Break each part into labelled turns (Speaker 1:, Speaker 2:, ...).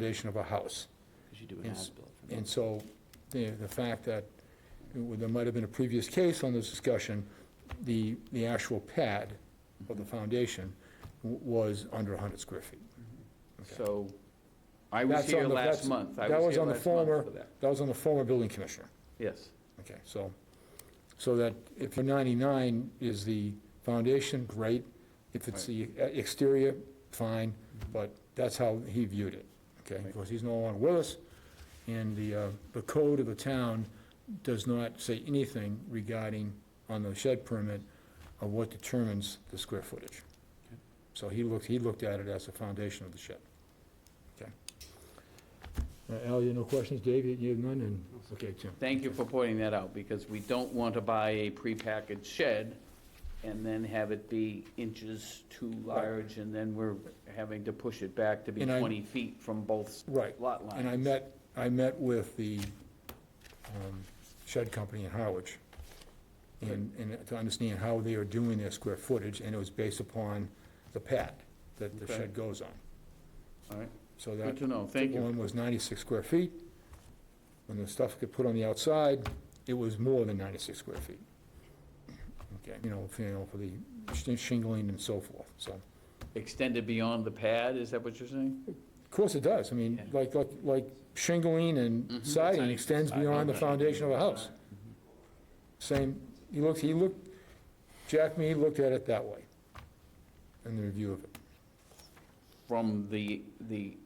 Speaker 1: foundation of a house.
Speaker 2: Because you do an
Speaker 1: Yes.
Speaker 2: as-built.
Speaker 1: And so, the, the fact that there might have been a previous case on this discussion, the, the actual pad of the foundation w- was under hundred square feet.
Speaker 2: So, I was
Speaker 1: That's on
Speaker 2: here
Speaker 1: the-
Speaker 2: last
Speaker 1: that's-
Speaker 2: month. I
Speaker 1: that
Speaker 2: was
Speaker 1: was
Speaker 2: here
Speaker 1: on the
Speaker 2: last month
Speaker 1: former-
Speaker 2: for that.
Speaker 1: That was on the former building commissioner.
Speaker 2: Yes,
Speaker 1: Okay, so, so that if your 99 is the foundation, great. If it's the exterior, fine, but that's how he viewed it, okay?
Speaker 2: Right.
Speaker 1: Because he's no longer with us, and the, uh, the code of the town does not say anything regarding, on the shed permit, of what determines the square footage.
Speaker 2: Okay.
Speaker 1: So he looked, he looked at it as the foundation of the shed. Okay. Uh, Al, you have no questions? Dave, you- you have none? And, okay, Tim.
Speaker 2: thank you for pointing that out, because we don't want to buy a prepackaged shed and then have it be inches too large, and then we're having to push it back to be
Speaker 1: And I-
Speaker 2: 20 feet from both
Speaker 1: Right,
Speaker 2: lot lines.
Speaker 1: and I met, I met with the um, shed company in Harwich, and, and to understand how they are doing their square footage, and it was based upon the pad that the
Speaker 2: Okay.
Speaker 1: shed goes on.
Speaker 2: All right,
Speaker 1: So that
Speaker 2: good to know, thank you.
Speaker 1: one was 96 square feet. When the stuff got put on the outside, it was more than 96 square feet. Okay, you know, for- you know, for the sh- shingling and so forth, so.
Speaker 2: Extended beyond the pad, is that what you're saying?
Speaker 1: Of course it does, I mean,
Speaker 2: Yeah.
Speaker 1: like, like- like shingling and
Speaker 2: Mhm.
Speaker 1: siding
Speaker 2: Siding.
Speaker 1: extends beyond the foundation of a house. Same, he looked, he looked, Jack Mead looked at it that way in the review of it.
Speaker 2: From the, the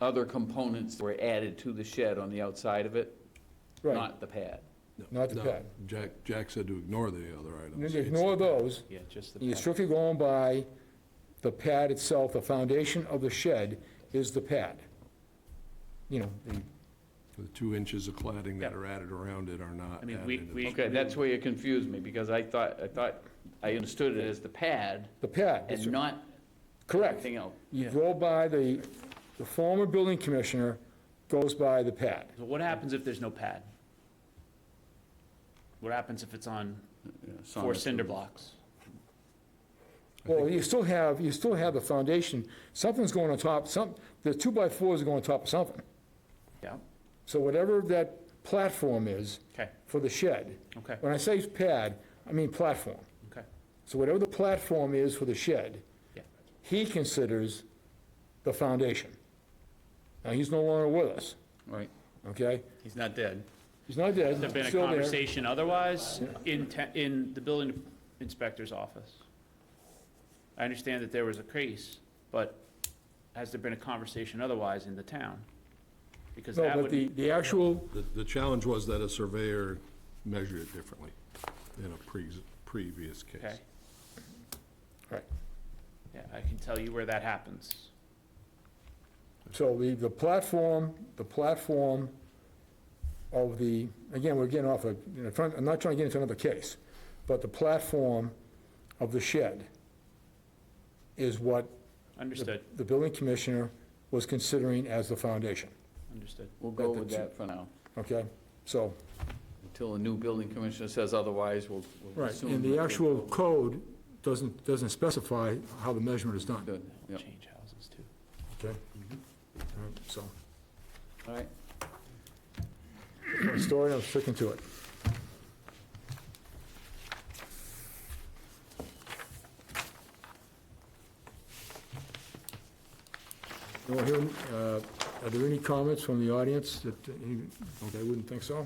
Speaker 2: other components that were added to the shed on the outside of it,
Speaker 1: Right,
Speaker 2: not the pad.
Speaker 1: not the
Speaker 3: No,
Speaker 1: pad.
Speaker 3: Jack, Jack said to ignore the other
Speaker 1: You
Speaker 3: items.
Speaker 1: Ignore those,
Speaker 2: Yeah, just the
Speaker 1: you're
Speaker 2: pad.
Speaker 1: strictly going by the pad itself, the foundation of the shed is the pad. You know, the,
Speaker 3: The two inches of cladding that
Speaker 1: Yeah.
Speaker 3: are added around it are not
Speaker 4: I mean,
Speaker 3: added.
Speaker 4: we-
Speaker 3: It's-
Speaker 4: we-
Speaker 2: Okay, that's where you confused me, because I thought, I thought, I understood it as the pad
Speaker 1: the pad,
Speaker 2: and not
Speaker 1: correct.
Speaker 2: anything else.
Speaker 1: You go by the, the former building commissioner goes by the pad.
Speaker 4: So what happens if there's no pad? What happens if it's on four cinder blocks?
Speaker 1: Well, you still have, you still have the foundation, something's going on top, some, the two-by-fours are going on top of something.
Speaker 4: Yeah,
Speaker 1: So whatever that platform is
Speaker 4: okay,
Speaker 1: for the shed,
Speaker 4: okay,
Speaker 1: when I say pad, I mean platform.
Speaker 4: okay,
Speaker 1: So whatever the platform is for the shed,
Speaker 4: yeah,
Speaker 1: he considers the foundation. Now, he's no longer with us,
Speaker 2: Right.
Speaker 1: okay?
Speaker 4: he's not dead.
Speaker 1: He's not dead,
Speaker 4: There've been a
Speaker 1: still there.
Speaker 4: conversation otherwise in, te- in the building inspector's office. I understand that there was a case, but has there been a conversation otherwise in the town? Because
Speaker 1: No,
Speaker 4: that
Speaker 1: but
Speaker 4: would,
Speaker 1: the, the actual,
Speaker 3: The, the challenge was that a surveyor measured it differently in a pre, previous
Speaker 4: okay,
Speaker 3: case.
Speaker 1: right,
Speaker 4: yeah, I can tell you where that happens.
Speaker 1: so the, the platform, the platform of the, again, we're getting off of, you know, trying, I'm not trying to get into another case, but the platform of the shed is what
Speaker 4: Understood,
Speaker 1: the building commissioner was considering as the foundation,
Speaker 4: understood.
Speaker 2: We'll go
Speaker 1: But the
Speaker 2: with
Speaker 1: two-
Speaker 2: that for now.
Speaker 1: okay? So,
Speaker 2: Until a new building commissioner says otherwise, we'll we'll
Speaker 1: right,
Speaker 2: assume.
Speaker 1: and the actual code doesn't, doesn't specify how the measurement is done,
Speaker 2: Good, yeah.
Speaker 4: Change houses too.
Speaker 1: okay? All right, So,
Speaker 2: All right,
Speaker 1: my story, I'm sticking to it. No, here, uh, are there any comments from the audience that, uh, any- okay, I wouldn't think so.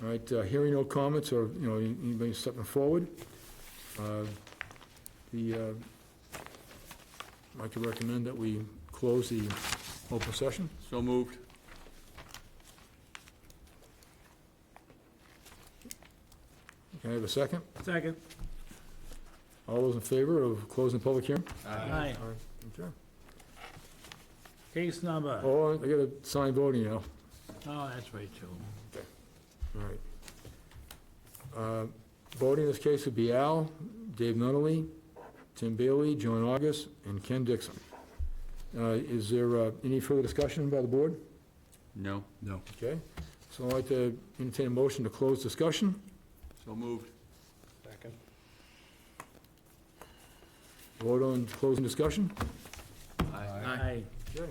Speaker 1: All right, uh, hearing no comments or, you know, anybody stepping forward. uh, The, uh, I'd like to recommend that we close the open session.
Speaker 2: so moved.
Speaker 1: Can I have a second?
Speaker 4: Second.
Speaker 1: All those in favor of closing the public hearing?
Speaker 5: Aye.
Speaker 1: Okay.
Speaker 5: Case number, oh,
Speaker 1: Oh, I gotta sign voting now.
Speaker 5: that's right, too.
Speaker 1: All right. Uh, Voting in this case would be Al, Dave Nunley, Tim Bailey, John August, and Ken Dixon. Uh, Is there uh, any further discussion by the board?
Speaker 2: No,
Speaker 3: No,
Speaker 1: Okay, so I'd like to entertain a motion to close discussion.
Speaker 2: so moved.
Speaker 1: Vote on closing discussion.
Speaker 5: Aye.
Speaker 1: Okay.